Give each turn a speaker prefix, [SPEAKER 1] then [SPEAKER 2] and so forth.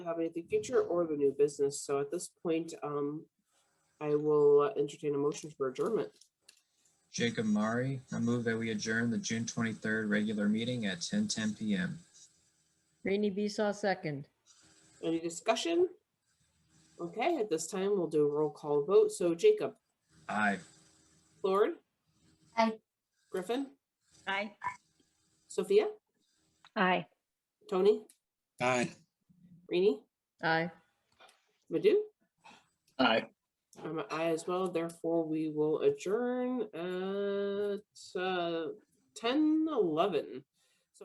[SPEAKER 1] have anything future or the new business. So at this point, um, I will uh, entertain a motion for adjournment.
[SPEAKER 2] Jacob Mari, I move that we adjourn the June 23rd regular meeting at 10:10 PM.
[SPEAKER 3] Rainy Beesaw, second.
[SPEAKER 1] Any discussion? Okay, at this time, we'll do a roll call vote. So Jacob,
[SPEAKER 2] Aye.
[SPEAKER 1] Lord?
[SPEAKER 4] Aye.
[SPEAKER 1] Griffin?
[SPEAKER 5] Aye.
[SPEAKER 1] Sophia?
[SPEAKER 4] Aye.
[SPEAKER 1] Tony?
[SPEAKER 6] Aye.
[SPEAKER 1] Rini?
[SPEAKER 3] Aye.
[SPEAKER 1] Madhu?
[SPEAKER 6] Aye.
[SPEAKER 1] I'm an aye as well, therefore we will adjourn at uh, ten eleven.